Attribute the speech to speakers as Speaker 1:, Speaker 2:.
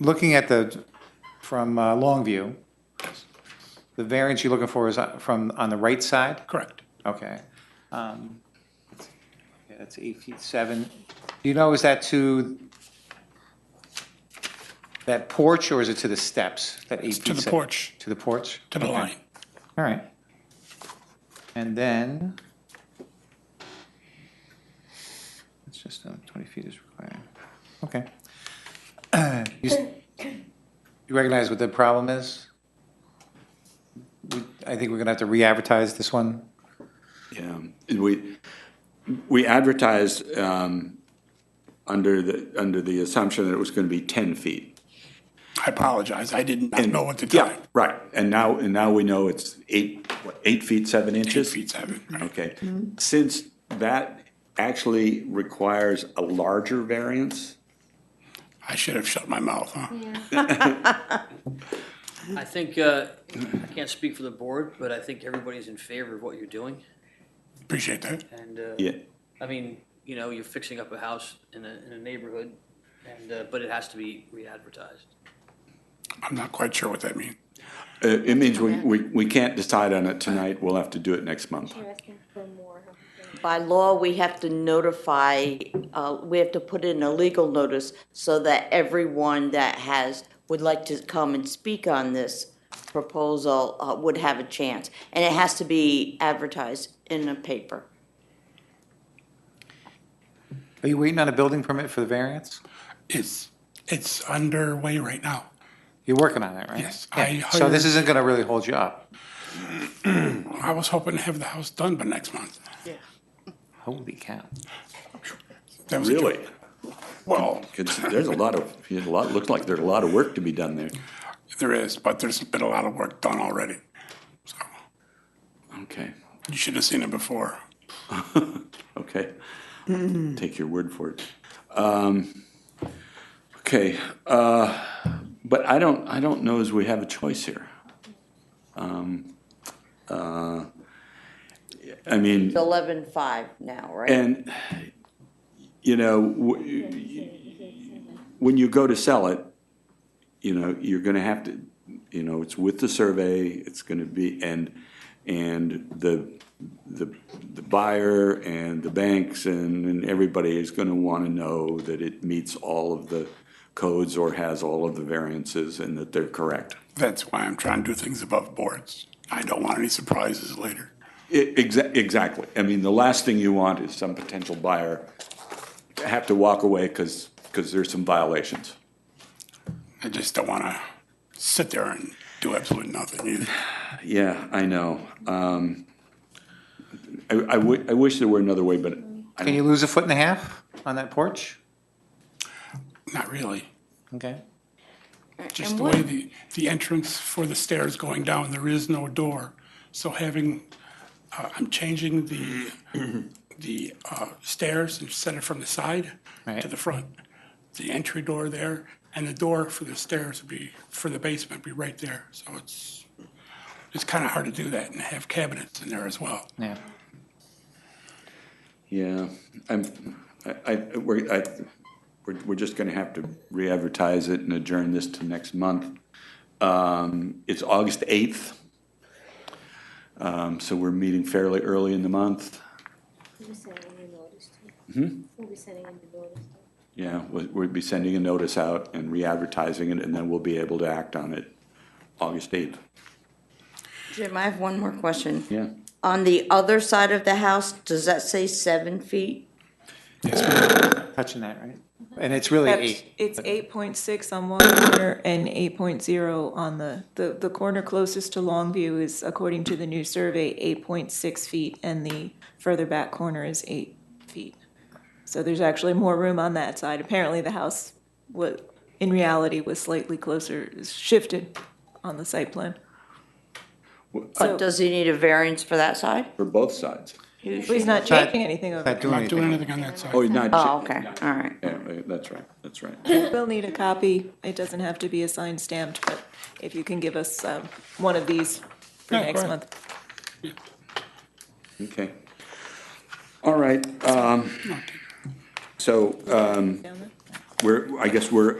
Speaker 1: looking at the, from uh, Longview, the variance you're looking for is on- from, on the right side?
Speaker 2: Correct.
Speaker 1: Okay. Um, yeah, That's eight feet seven. Do you know, is that to that porch or is it to the steps? That eight
Speaker 2: It's
Speaker 1: feet
Speaker 2: to the
Speaker 1: seven?
Speaker 2: porch,
Speaker 1: To the porch?
Speaker 2: to the
Speaker 1: Okay.
Speaker 2: line.
Speaker 1: All right. And then, it's just uh, 20 feet is required. Okay. You s- you recognize what the problem is? We- I think we're going to have to re-advertise this one.
Speaker 3: Yeah, Um, we, we advertised, um, under the, under the assumption that it was gonna be ten feet.
Speaker 2: I apologize, I didn't know at the
Speaker 3: Yeah,
Speaker 2: time.
Speaker 3: right, and now, and now we know it's eight, what, eight feet, seven
Speaker 2: Two
Speaker 3: inches?
Speaker 2: feet seven, right?
Speaker 3: Okay, since that actually requires a larger variance,
Speaker 2: I should have shut my mouth, huh?
Speaker 4: I think, uh, I can't speak for the board, but I think everybody's in favor of what you're doing.
Speaker 2: Appreciate that.
Speaker 4: And, uh,
Speaker 3: yeah,
Speaker 4: I mean, you know, you're fixing up a house in a, in a neighborhood, and, uh, but it has to be re-advertised.
Speaker 2: I'm not quite sure what that means.
Speaker 3: Uh, it means we, we, we can't decide on it tonight, we'll have to do it next month.
Speaker 5: You're asking for more.
Speaker 6: By law, we have to notify, uh, we have to put in a legal notice so that everyone that has, would like to come and speak on this proposal uh, would have a chance. And it has to be advertised in a paper.
Speaker 1: Are you waiting on a building permit for the variance?
Speaker 2: It's, it's underway right now.
Speaker 1: You're working on it, right?
Speaker 2: Yes, I
Speaker 1: So this
Speaker 2: hired-
Speaker 1: isn't going to really hold you up.
Speaker 2: I was hoping to have the house done by next month.
Speaker 1: Holy cow.
Speaker 2: That was a
Speaker 3: Really?
Speaker 2: joke. Well,
Speaker 3: 'Cause there's a lot of, there's a lot, looks like there's a lot of work to be done there.
Speaker 2: there is, but there's been a lot of work done already. So
Speaker 3: Okay,
Speaker 2: you should have seen it before.
Speaker 3: okay. Take your word for it. Um, Okay, uh, but I don't, I don't know as we have a choice here. Um, uh, I mean,
Speaker 6: It's eleven-five now, right?
Speaker 3: and, you know, w- when you go to sell it, you know, you're gonna have to, you know, it's with the survey, it's gonna be, and, and the, the, the buyer and the banks and, and everybody is gonna wanna know that it meets all of the codes or has all of the variances and that they're correct.
Speaker 2: That's why I'm trying to do things above boards. I don't want any surprises later.
Speaker 3: E- exa- Exactly. I mean, the last thing you want is some potential buyer to have to walk away because, because there's some violations.
Speaker 2: I just don't want to sit there and do absolutely nothing either.
Speaker 3: Yeah, I know. Um, I, I wi- I wish there were another way, but I
Speaker 1: Can you lose a foot and a half on that porch?
Speaker 2: Not really.
Speaker 1: Okay.
Speaker 2: Just the way the, the entrance for the stairs going down, there is no door. So having, uh, I'm changing the, the uh, stairs and set it from the side
Speaker 1: Right.
Speaker 2: to the front. The entry door there and the door for the stairs would be, for the basement would be right there. So it's, it's kind of hard to do that and have cabinets in there as well.
Speaker 1: Yeah.
Speaker 3: Yeah, I'm, I, I, we're, I, we're, we're just gonna have to re-advertise it and adjourn this to next month. Um, it's August eighth. Um, so we're meeting fairly early in the month.
Speaker 5: We'll be sending a notice to We'll be sending a notice to
Speaker 3: Yeah, we- we'd be sending a notice out and re-advertising it, and then we'll be able to act on it August eighth.
Speaker 6: Jim, I have one more question.
Speaker 3: Yeah.
Speaker 6: On the other side of the house, does that say seven feet?
Speaker 1: Touching that, right? And it's really
Speaker 7: That's-
Speaker 1: eight.
Speaker 7: It's eight point six on one corner and eight point zero on the, the, the corner closest to Longview is, according to the new survey, eight point six feet, and the further back corner is eight feet. So there's actually more room on that side. Apparently, the house wa, in reality, was slightly closer, shifted on the site plan. So-
Speaker 6: But does he need a variance for that side?
Speaker 3: For both sides.
Speaker 7: But he's not
Speaker 1: Not-
Speaker 7: changing anything over
Speaker 1: Not
Speaker 7: there.
Speaker 1: doing
Speaker 2: Not doing
Speaker 1: anything.
Speaker 2: anything on that side.
Speaker 3: Oh, not.
Speaker 6: Oh, okay, all right.
Speaker 3: Yeah, that's right, that's right.
Speaker 7: We'll need a copy. It doesn't have to be a signed stamped, but if you can give us, um, one of these for
Speaker 2: Yeah, go
Speaker 7: next
Speaker 2: ahead.
Speaker 7: month.
Speaker 3: Okay. All right, um, so, um,
Speaker 7: Down there?
Speaker 3: we're, I guess we're